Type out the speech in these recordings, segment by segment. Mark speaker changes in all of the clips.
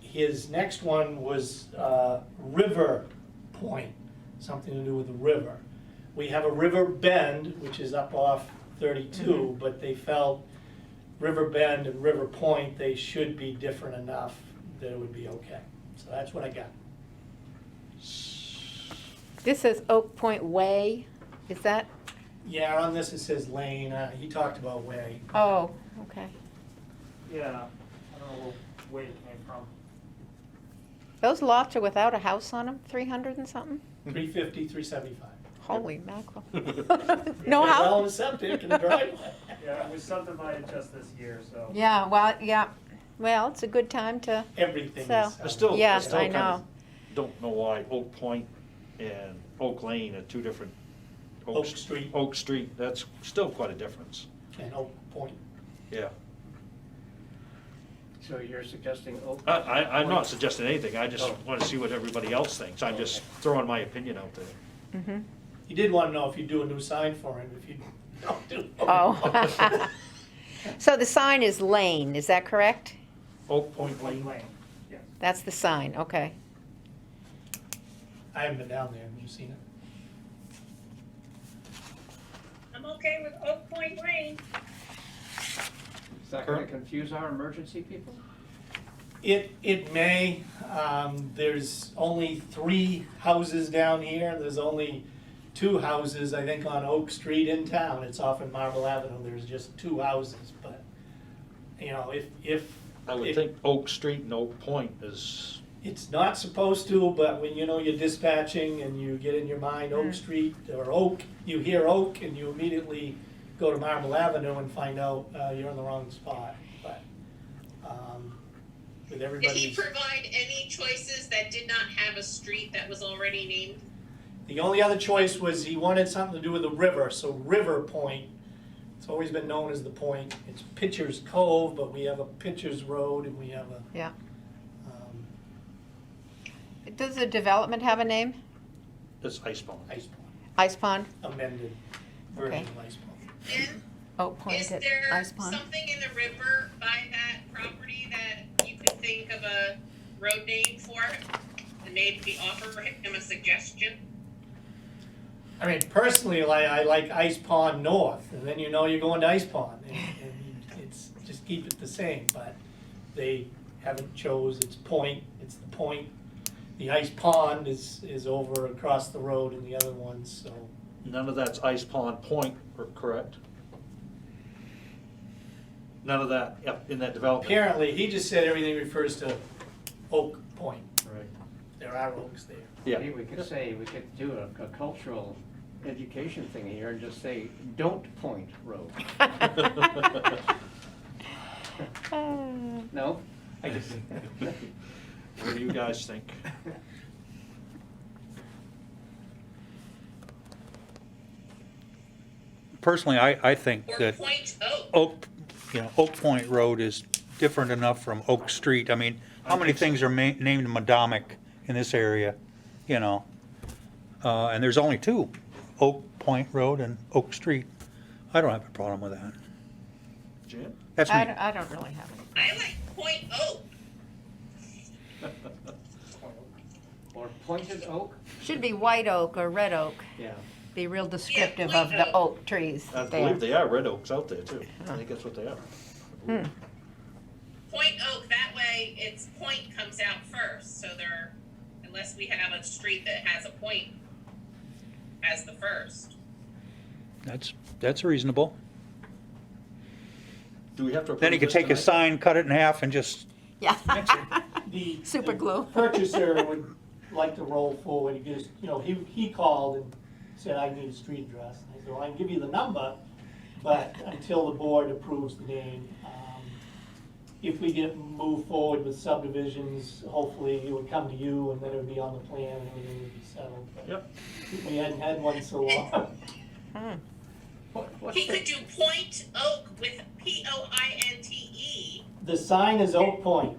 Speaker 1: His next one was uh, River Point, something to do with the river. We have a river bend, which is up off
Speaker 2: Mm-hmm.
Speaker 1: 32, but they felt River Bend and River Point, they should be different enough that it would be okay. So that's what I got.
Speaker 2: This says Oak Point Way, is that,
Speaker 1: Yeah, on this it says lane, uh, he talked about way.
Speaker 2: oh, okay.
Speaker 3: Yeah, I don't know where it came from.
Speaker 2: Those lots are without a house on them, three hundred and something?
Speaker 1: 350, 375.
Speaker 2: Holy mackerel. No
Speaker 1: Yeah, Well, and
Speaker 2: house?
Speaker 1: septic and driveway.
Speaker 3: Yeah, it was subdivided just this year, so.
Speaker 2: Yeah, well, yeah, well, it's a good time to,
Speaker 1: Everything is.
Speaker 2: So-
Speaker 1: septic.
Speaker 4: Still- Oh,
Speaker 2: yes,
Speaker 4: still
Speaker 2: I
Speaker 4: kind of-
Speaker 2: know.
Speaker 4: Don't know why Oak Point and Oak Lane are two different.
Speaker 1: Oak
Speaker 4: St-
Speaker 1: Street.
Speaker 4: Oak Street, that's still quite a difference,
Speaker 1: And Oak Point.
Speaker 4: yeah.
Speaker 5: So you're suggesting oh, Oak?
Speaker 4: I, I, I'm not suggesting anything, I just
Speaker 5: Oh.
Speaker 4: wanna see what everybody else thinks, I'm just
Speaker 5: Okay.
Speaker 4: throwing my opinion out there.
Speaker 2: Mhm.
Speaker 1: He did want to know if you do a new sign for him, if you don't do.
Speaker 2: Oh. So the sign is Lane, is that correct?
Speaker 4: Oak Point
Speaker 3: Lane,
Speaker 4: Lane,
Speaker 3: Lane, yes.
Speaker 2: That's the sign, okay.
Speaker 1: I haven't been down there, have you seen it?
Speaker 6: I'm okay with Oak Point Lane.
Speaker 5: Is that gonna confuse our emergency people?
Speaker 1: It, it may, um, there's only three houses down here, there's only two houses, I think, on Oak Street in town, it's off in Marble Avenue, there's just two houses, but, you know, if, if.
Speaker 4: I would
Speaker 1: if-
Speaker 4: think Oak Street and Oak Point is,
Speaker 1: It's not supposed to, but when you know you're dispatching and you get in your mind
Speaker 7: Hmm.
Speaker 1: Oak Street or Oak, you hear Oak and you immediately go to Marble Avenue and find out uh, you're in the wrong spot. But um, with
Speaker 7: Did he
Speaker 1: everybody's,
Speaker 7: provide any choices that did not have a street that was already named?
Speaker 1: the only other choice was he wanted something to do with the river, so River Point. It's always been known as the Point. It's Pitcher's Cove, but we have a Pitcher's Road and we have a.
Speaker 2: Yeah.
Speaker 1: um,
Speaker 2: Does the development have a name?
Speaker 4: is Icebone.
Speaker 1: Ice Pond,
Speaker 2: Ice Pond?
Speaker 1: amended version
Speaker 2: Okay.
Speaker 1: of Ice Pond.
Speaker 7: And
Speaker 2: Oak Point
Speaker 7: is
Speaker 2: at
Speaker 7: there
Speaker 2: Ice Pond?
Speaker 7: something in the river by that property that you could think of a road name for? it? And maybe offer him a suggestion?
Speaker 1: I mean, personally, like, I like Ice Pond North, and then you know you're going to Ice Pond, and, and it's, just keep it the same, but they haven't chose its point, it's the point. The Ice Pond is, is over across the road and the other ones, so,
Speaker 4: None of that's Ice Pond Point, or- correct? None of that, yep, in that development.
Speaker 1: apparently, he just said everything refers to Oak Point,
Speaker 4: Right.
Speaker 1: there are oaks there.
Speaker 4: Yeah.
Speaker 5: Maybe we could say, we could do a, a cultural education thing here and just say, don't point road.
Speaker 2: Uh,
Speaker 5: No? I just.
Speaker 4: What do you guys think?
Speaker 8: personally, I, I think
Speaker 7: Or
Speaker 8: that
Speaker 7: Point Oak?
Speaker 8: Oak, you know, Oak Point Road is different enough from Oak Street. I mean, how many things are ma- named Madomic in this area, you know? Uh, and there's only two, Oak Point Road and Oak Street. I don't have a problem with that.
Speaker 4: Jim?
Speaker 8: That's
Speaker 2: I
Speaker 8: me.
Speaker 2: don't, I don't really have any.
Speaker 7: I like Point Oak.
Speaker 5: Or pointed oak?
Speaker 2: Should be white oak or red oak,
Speaker 5: Yeah.
Speaker 2: be real descriptive of the oak trees
Speaker 4: I
Speaker 2: there.
Speaker 4: believe they are red oaks out there too. I think that's what they are.
Speaker 7: Point Oak, that way its point comes out first, so there, unless we have a street that has a point as the first.
Speaker 8: That's, that's reasonable.
Speaker 4: Do we have to approve
Speaker 8: Then he could
Speaker 4: this
Speaker 8: take a
Speaker 4: tonight?
Speaker 8: sign, cut it in half and just,
Speaker 2: Yeah.
Speaker 1: The-
Speaker 2: Super
Speaker 1: the
Speaker 2: glue.
Speaker 1: Purchaser would like to roll forward, he just, you know, he, he called and said, I need a street address. And I said, well, I can give you the number, but until the board approves the name, um, if we get, move forward with subdivisions, hopefully it would come to you and then it would be on the plan and everything would be settled. But
Speaker 4: Yep.
Speaker 1: We hadn't had one so long.
Speaker 5: What, what's
Speaker 7: He could
Speaker 5: the,
Speaker 7: do Point Oak with P O I N T E.
Speaker 1: The sign is Oak Point.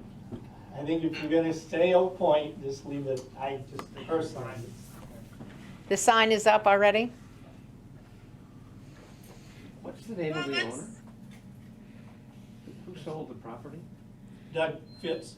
Speaker 1: I think if you're gonna stay Oak Point, just leave it, I just personally,
Speaker 2: The sign is up already?
Speaker 5: what's the name of
Speaker 7: Well,
Speaker 5: the
Speaker 7: that's-
Speaker 5: owner? Who sold the property?
Speaker 1: Doug Fitz,